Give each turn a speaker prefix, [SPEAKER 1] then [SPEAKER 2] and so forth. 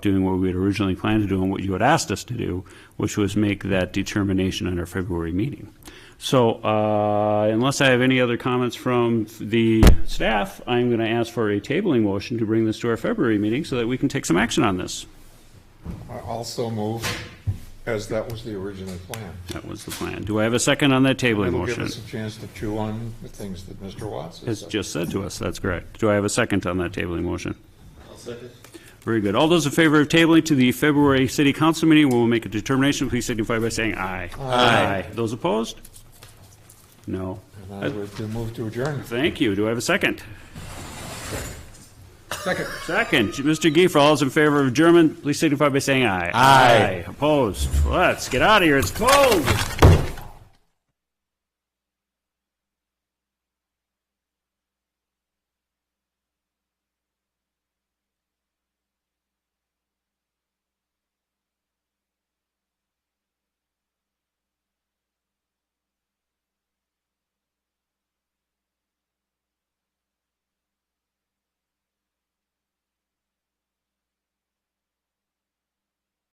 [SPEAKER 1] doing what we had originally planned to do and what you had asked us to do, which was make that determination at our February meeting. So uh, unless I have any other comments from the staff, I'm going to ask for a tabling motion to bring this to our February meeting so that we can take some action on this.
[SPEAKER 2] I also move, as that was the original plan.
[SPEAKER 1] That was the plan. Do I have a second on that tabling
[SPEAKER 2] It'll give
[SPEAKER 1] motion?
[SPEAKER 2] us a chance to chew on the things that Mr. Watts has
[SPEAKER 1] Has
[SPEAKER 2] said.
[SPEAKER 1] just said to us, that's correct. Do I have a second on that tabling motion? Very good. All those in favor of tabling to the February city council meeting, we will make a determination, please signify by saying aye. Aye. Those opposed? No.
[SPEAKER 2] And I would do move to adjourn.
[SPEAKER 1] Thank you. Do I have a second? Second. Second. Mr. Giefer, all those in favor of adjournment, please signify by saying aye. Aye. Opposed? Let's get out of here. It's cold.